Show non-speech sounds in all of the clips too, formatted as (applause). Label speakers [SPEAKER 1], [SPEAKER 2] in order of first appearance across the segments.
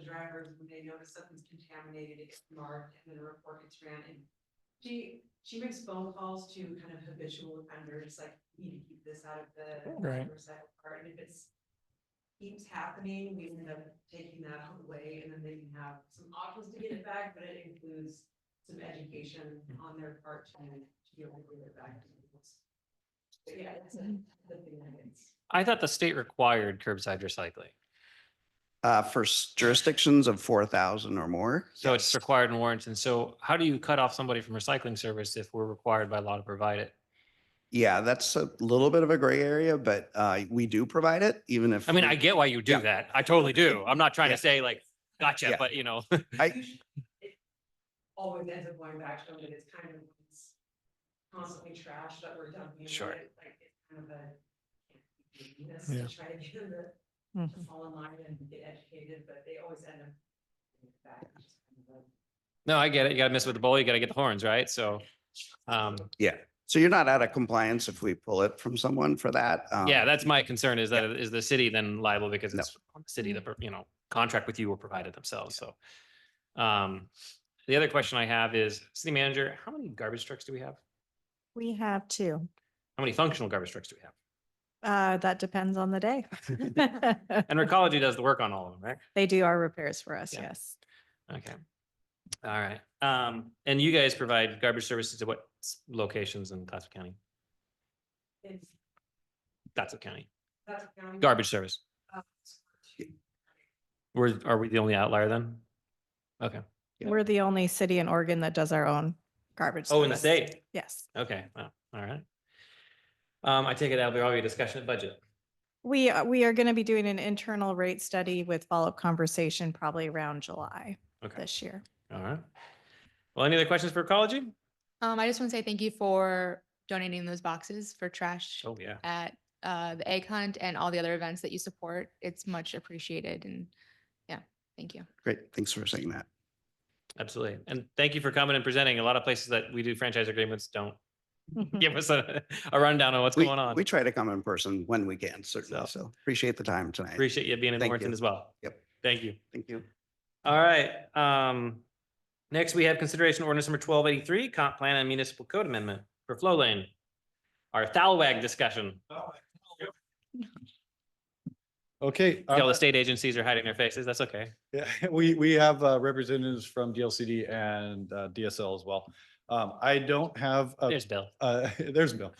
[SPEAKER 1] drivers, when they notice something's contaminated, it's marked, and then a report gets ran, and she, she makes phone calls to kind of habitual offenders, like, you need to keep this out of the
[SPEAKER 2] Right.
[SPEAKER 1] recycle part, and if it's keeps happening, we end up taking that away, and then they can have some options to get it back, but it includes some education on their part to, to be able to get it back. to people's- But yeah, that's a, the thing that it's.
[SPEAKER 2] I thought the state required curbside recycling.
[SPEAKER 3] Uh, for s- jurisdictions of four thousand or more.
[SPEAKER 2] So it's required in Warrington. So how do you cut off somebody from recycling service if we're required by law to provide it?
[SPEAKER 3] Yeah, that's a little bit of a gray area, but, uh, we do provide it, even if.
[SPEAKER 2] I mean,
[SPEAKER 3] we-
[SPEAKER 2] I get why you
[SPEAKER 3] Yeah.
[SPEAKER 2] do that. I totally do. I'm not trying
[SPEAKER 3] Yeah.
[SPEAKER 2] to say like, gotcha,
[SPEAKER 3] Yeah.
[SPEAKER 2] but you know, (laughs)
[SPEAKER 3] I-
[SPEAKER 1] usually it Always ends up going back to them, and it's kind of it's constantly trash that we're dumping.
[SPEAKER 2] Sure.
[SPEAKER 1] it, Like, it's kind of a. This
[SPEAKER 4] Yeah.
[SPEAKER 1] to try to get them to
[SPEAKER 2] Hmm.
[SPEAKER 4] Mhm.
[SPEAKER 1] to fall in line and get educated, but they always end up. getting it back, which is kind of a-
[SPEAKER 2] no, I get it. You gotta miss with the bull, you gotta get the horns, right? So, um,
[SPEAKER 3] So you're not out of compliance if we pull it from someone for that. um,
[SPEAKER 2] yeah, that's my concern is that is the city then liable because
[SPEAKER 3] No.
[SPEAKER 2] it's the city that, you know, contract with you or provided themselves, so. Um, the other question I have is, city manager, how many garbage trucks do we have?
[SPEAKER 4] We have two.
[SPEAKER 2] How many functional garbage trucks do we have?
[SPEAKER 4] Uh, that depends on
[SPEAKER 2] (laughs)
[SPEAKER 4] the day. (laughs)
[SPEAKER 2] And Recology does the work on all of them, right?
[SPEAKER 4] They do our repairs for us,
[SPEAKER 2] Yeah.
[SPEAKER 4] yes.
[SPEAKER 2] Okay. All right. Um, and you guys provide garbage services to what s- locations in Clatsop County?
[SPEAKER 1] It's,
[SPEAKER 2] Clatsop County,
[SPEAKER 1] that's. kind of-
[SPEAKER 2] garbage service.
[SPEAKER 1] uh, it's-
[SPEAKER 2] We're, are we the only outlier then? Okay.
[SPEAKER 3] Yeah.
[SPEAKER 4] We're the only city in Oregon that does our own garbage.
[SPEAKER 2] Oh, in the
[SPEAKER 4] service.
[SPEAKER 2] state.
[SPEAKER 4] Yes.
[SPEAKER 2] Okay. Wow. All right. Um, I take it that'll be all your discussion of budget.
[SPEAKER 4] We, uh, we are going to be doing an internal rate study with follow-up conversation probably around July
[SPEAKER 2] Okay.
[SPEAKER 4] this year.
[SPEAKER 2] All right. Well, any other questions for Recology?
[SPEAKER 5] Um, I just want to say thank you for donating those boxes for trash
[SPEAKER 2] Oh, yeah.
[SPEAKER 5] at uh, the egg hunt and all the other events that you support. It's much appreciated and yeah, thank you.
[SPEAKER 3] Great, thanks for saying that.
[SPEAKER 2] Absolutely. And thank you for coming and presenting. A lot of places that we do franchise agreements don't
[SPEAKER 4] Mm-hmm.
[SPEAKER 2] give us a, a rundown on what's
[SPEAKER 3] Hmm. We-
[SPEAKER 2] going on.
[SPEAKER 3] We try to come in person when we can,
[SPEAKER 2] So-
[SPEAKER 3] certainly. So appreciate the time tonight.
[SPEAKER 2] Appreciate you being in
[SPEAKER 3] Thank
[SPEAKER 2] Warrington
[SPEAKER 3] you.
[SPEAKER 2] as well.
[SPEAKER 3] Yep.
[SPEAKER 2] Thank you.
[SPEAKER 3] Thank you.
[SPEAKER 2] All right, um, next we have consideration ordinance number twelve eighty-three, comp plan and municipal code amendment for flow lane. Our Thalwag discussion.
[SPEAKER 6] Okay. uh,
[SPEAKER 2] All the state agencies are hiding their faces. That's okay.
[SPEAKER 6] yeah, (laughs) We, we have uh, representatives from DLCD and uh, DSL as well. Um, I don't have, a-
[SPEAKER 2] There's Bill.
[SPEAKER 6] uh, (laughs) there's Bill.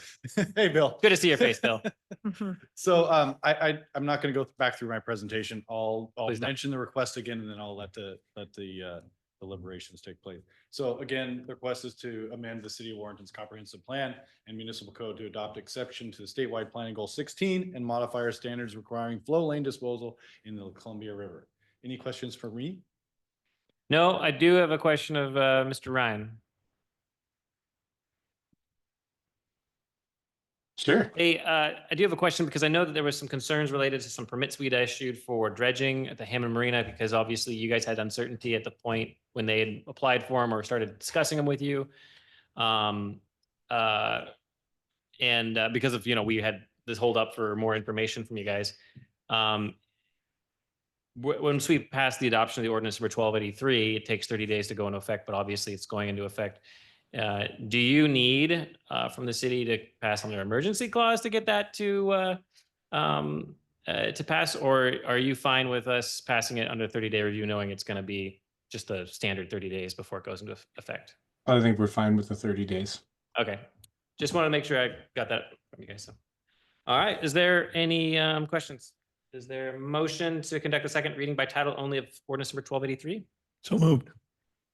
[SPEAKER 6] Hey, Bill.
[SPEAKER 2] Good to see your face, Bill.
[SPEAKER 4] Mm-hmm.
[SPEAKER 6] So um, I, I, I'm not going to go back through my presentation. I'll, I'll
[SPEAKER 2] Please don't.
[SPEAKER 6] mention the request again and then I'll let the, let the uh, deliberations take place. So again, the request is to amend the city of Warrenton's comprehensive plan and municipal code to adopt exception to the statewide planning goal sixteen and modify our standards requiring flow lane disposal in the Columbia River. Any questions for me?
[SPEAKER 2] No, I do have a question of, uh, Mr. Ryan.
[SPEAKER 6] Sure.
[SPEAKER 2] Hey, uh, I do have a question because I know that there was some concerns related to some permits we'd issued for dredging at the Hammond Marina because obviously you guys had uncertainty at the point when they had applied for them or started discussing them with you. Um, uh, and uh, because of, you know, we had this hold up for more information from you guys. Um, w- once we pass the adoption of the ordinance number twelve eighty-three, it takes thirty days to go into effect, but obviously it's going into effect uh, do you need uh, from the city to pass on their emergency clause to get that to uh, um, uh, to pass, or are you fine with us passing it under 30 day review, knowing it's going to be just the standard 30 days before it goes into eff- effect?
[SPEAKER 7] I think we're fine with the thirty days.
[SPEAKER 2] Okay, just want to make sure I got that from you guys. So, all right, is there any um, questions? Is there a motion to conduct a second reading by title only of ordinance number 1283?
[SPEAKER 4] So moved.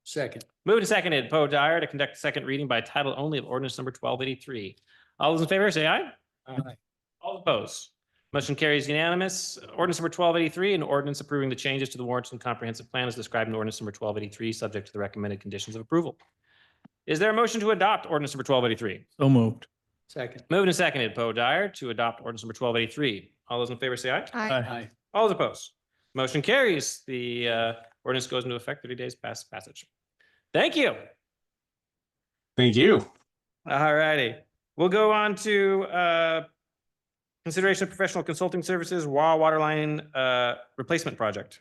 [SPEAKER 7] Second.
[SPEAKER 2] Moved and seconded, Poe Dyer to conduct a second reading by title only of ordinance number twelve eighty-three. All those in favor, say aye.
[SPEAKER 7] Aye.
[SPEAKER 2] All opposed. Motion carries unanimous. Ordinance number twelve eighty-three, an ordinance approving the changes to the Warrenton Comprehensive Plan as described in ordinance number twelve eighty-three, subject to the recommended conditions of approval. Is there a motion to adopt ordinance number twelve eighty-three?
[SPEAKER 7] So moved.
[SPEAKER 2] Second. Moved and seconded, Poe Dyer to adopt ordinance number twelve eighty-three. All those in favor, say aye.
[SPEAKER 5] I
[SPEAKER 2] All those opposed. Motion carries. The uh, ordinance goes into effect thirty days past passage. Thank you.
[SPEAKER 7] Thank you.
[SPEAKER 2] All righty, we'll go on to uh, consideration of professional consulting services, WA Waterline uh, Replacement Project.